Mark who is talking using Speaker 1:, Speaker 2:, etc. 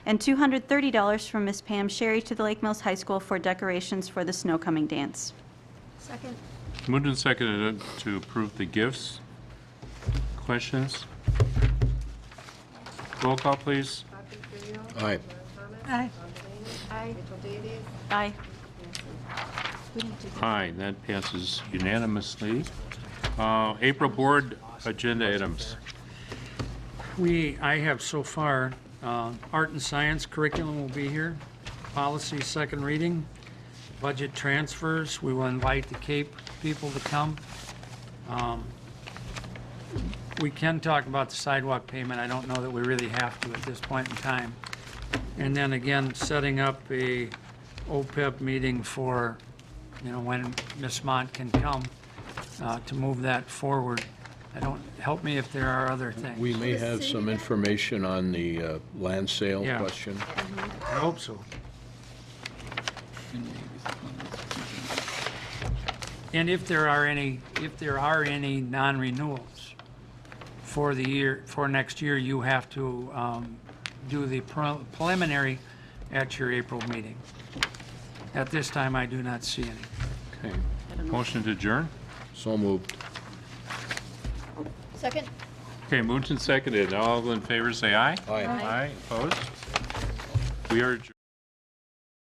Speaker 1: and $230 from Ms. Pam Sherry to the Lake Mills High School for decorations for the snow coming dance.
Speaker 2: Second.
Speaker 3: Moved and seconded to approve the gifts. Questions? Roll call, please.
Speaker 2: Bobby Grino.
Speaker 4: Aye.
Speaker 2: Thomas. Aye. Aye. Mitchell Davies.
Speaker 1: Aye.
Speaker 3: Aye, that passes unanimously. Uh, April Board Agenda Items.
Speaker 5: We, I have so far, uh, art and science curriculum will be here, policy second reading, budget transfers, we will invite the Cape people to come. Um, We can talk about the sidewalk payment, I don't know that we really have to at this point in time. And then again, setting up a OPEB meeting for, you know, when Ms. Mont can come uh, to move that forward. I don't, help me if there are other things.
Speaker 4: We may have some information on the uh, land sale
Speaker 5: Yeah.
Speaker 4: question.
Speaker 5: I hope so. And if there are any, if there are any non-renewals for the year, for next year, you have to um, do the pre- preliminary at your April meeting. At this time, I do not see any.
Speaker 3: Okay. Motion to adjourn?
Speaker 4: So moved.
Speaker 2: Second.
Speaker 3: Okay, moved and seconded. All in favor, say aye.
Speaker 4: Aye.
Speaker 3: Aye, opposed? We are adjourned.